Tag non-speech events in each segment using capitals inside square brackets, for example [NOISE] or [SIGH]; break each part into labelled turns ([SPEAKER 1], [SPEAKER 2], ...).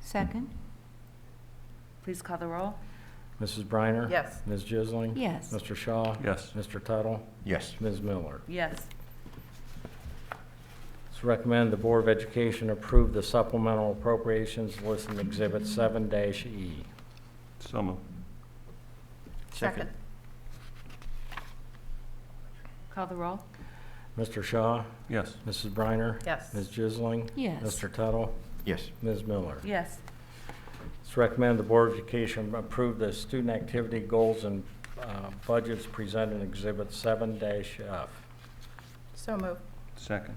[SPEAKER 1] Second?
[SPEAKER 2] Please call the roll.
[SPEAKER 3] Mrs. Briner?
[SPEAKER 2] Yes.
[SPEAKER 3] Ms. Jisling?
[SPEAKER 1] Yes.
[SPEAKER 3] Mr. Shaw?
[SPEAKER 4] Yes.
[SPEAKER 3] Mr. Tuttle?
[SPEAKER 5] Yes.
[SPEAKER 3] Ms. Miller?
[SPEAKER 2] Yes.
[SPEAKER 3] It's recommend the Board of Education approve the supplemental appropriations listed in Exhibit E. 7-E.
[SPEAKER 4] So moved.
[SPEAKER 2] Second. Call the roll.
[SPEAKER 3] Mr. Shaw?
[SPEAKER 4] Yes.
[SPEAKER 3] Mrs. Briner?
[SPEAKER 2] Yes.
[SPEAKER 3] Ms. Jisling?
[SPEAKER 1] Yes.
[SPEAKER 3] Mr. Tuttle?
[SPEAKER 5] Yes.
[SPEAKER 3] Ms. Miller?
[SPEAKER 2] Yes.
[SPEAKER 3] It's recommend the Board of Education approve the student activity goals and uh, budgets presented in Exhibit 7-F.
[SPEAKER 2] So moved.
[SPEAKER 4] Second.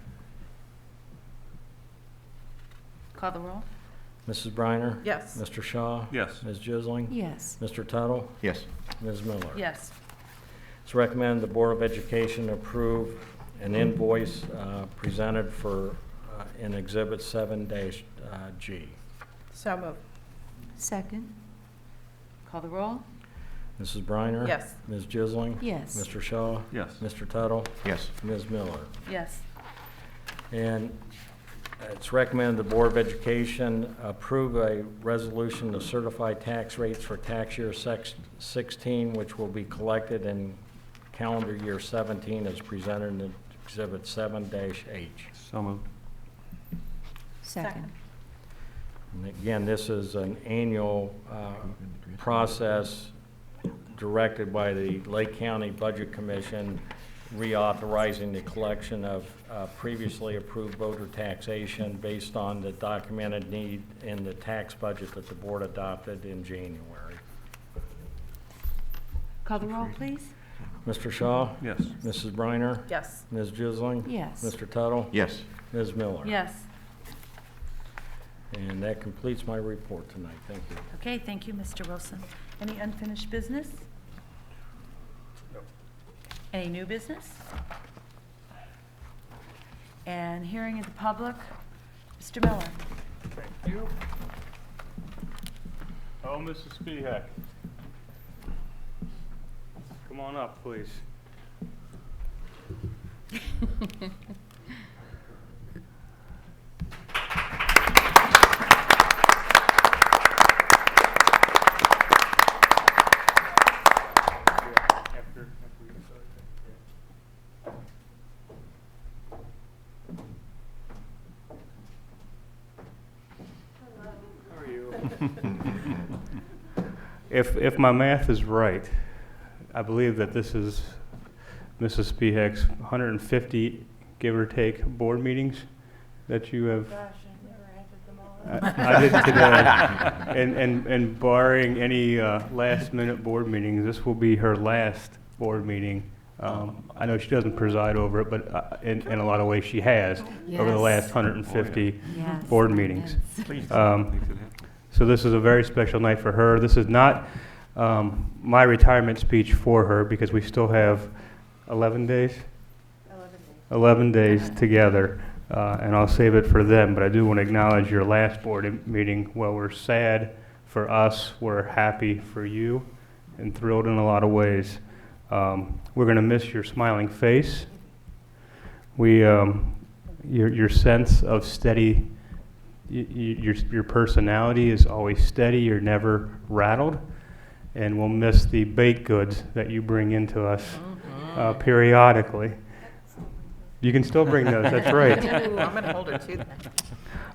[SPEAKER 2] Call the roll.
[SPEAKER 3] Mrs. Briner?
[SPEAKER 2] Yes.
[SPEAKER 3] Mr. Shaw?
[SPEAKER 4] Yes.
[SPEAKER 3] Ms. Jisling?
[SPEAKER 1] Yes.
[SPEAKER 3] Mr. Tuttle?
[SPEAKER 5] Yes.
[SPEAKER 3] Ms. Miller?
[SPEAKER 2] Yes.
[SPEAKER 3] It's recommend the Board of Education approve an invoice uh, presented for, uh, in Exhibit uh, 7-G.
[SPEAKER 2] So moved.
[SPEAKER 1] Second?
[SPEAKER 2] Call the roll.
[SPEAKER 3] Mrs. Briner?
[SPEAKER 2] Yes.
[SPEAKER 3] Ms. Jisling?
[SPEAKER 1] Yes.
[SPEAKER 3] Mr. Shaw?
[SPEAKER 4] Yes.
[SPEAKER 3] Mr. Tuttle?
[SPEAKER 5] Yes.
[SPEAKER 3] Ms. Miller?
[SPEAKER 2] Yes.
[SPEAKER 3] And it's recommended the Board of Education approve a resolution to certify tax rates for tax year sex- 16, which will be collected in calendar year 17 as presented in Exhibit 7-H.
[SPEAKER 4] So moved.
[SPEAKER 1] Second?
[SPEAKER 3] And again, this is an annual uh, process directed by the Lake County Budget Commission reauthorizing the collection of uh, previously approved voter taxation based on the documented need in the tax budget that the board adopted in January.
[SPEAKER 2] Call the roll, please.
[SPEAKER 3] Mr. Shaw?
[SPEAKER 4] Yes.
[SPEAKER 3] Mrs. Briner?
[SPEAKER 2] Yes.
[SPEAKER 3] Ms. Jisling?
[SPEAKER 1] Yes.
[SPEAKER 3] Mr. Tuttle?
[SPEAKER 5] Yes.
[SPEAKER 3] Ms. Miller?
[SPEAKER 2] Yes.
[SPEAKER 3] And that completes my report tonight. Thank you.
[SPEAKER 2] Okay, thank you, Mr. Wilson. Any unfinished business? Any new business? And hearing of the public, Mr. Miller.
[SPEAKER 6] Thank you. Oh, Mrs. Spehak. Come on up, please. Yeah, after- after you decide, yeah. How are you? If, if my math is right, I believe that this is Mrs. Spehak's 150, give or take, board meetings that you have. Gosh, I never entered them all. I did [LAUGHS] today. And, and, and barring any uh, last-minute board meetings, this will be her last board meeting. Um, I know she doesn't preside over it, but uh, in, in a lot of ways, she has, over the
[SPEAKER 1] Yes.
[SPEAKER 6] last 150
[SPEAKER 1] Yes.
[SPEAKER 6] board meetings.
[SPEAKER 4] Please.
[SPEAKER 6] Um,
[SPEAKER 4] Please, it happened.
[SPEAKER 6] So this is a very special night for her. This is not um, my retirement speech for her because we still have 11 days? 11 days. together, uh, and I'll save it for them, but I do want to acknowledge your last board em- meeting. While we're sad for us, we're happy for you and thrilled in a lot of ways. Um, We're going to miss your smiling face. We, um, your your sense of steady y- y- your, your personality is always steady, you're never rattled, and we'll miss the baked goods that you bring into us uh, periodically. You can still bring those, that's right.
[SPEAKER 2] I'm going to hold her to that.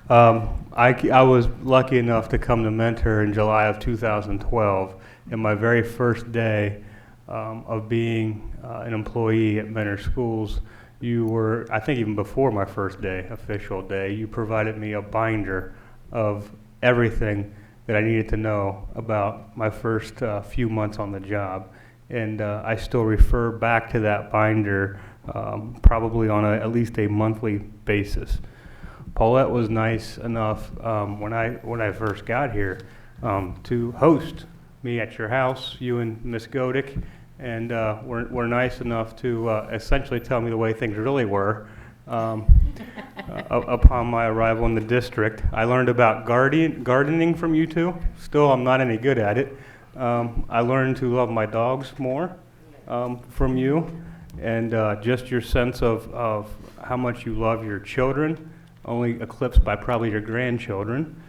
[SPEAKER 6] Um, I, c- I was lucky enough to come to Mentor in July of 2012, and my very first day um, of being uh, an employee at Mentor Schools, you were, I think even before my first day, official day, you provided me a binder of everything that I needed to know about my first uh, few months on the job. And uh, I still refer back to that binder um, probably on a, at least a monthly basis. Paulette was nice enough um, when I when I first got here um, to host me at your house, you and Miss Godick, and uh, were, were nice enough to uh, essentially tell me the way things really were. Um, uh, upon my arrival in the district, I learned about guardian, gardening from you two. Still, I'm not any good at it. Um, I learned to love my dogs more um, from you, and uh, just your sense of, of how much you love your children, only eclipsed by probably your grandchildren.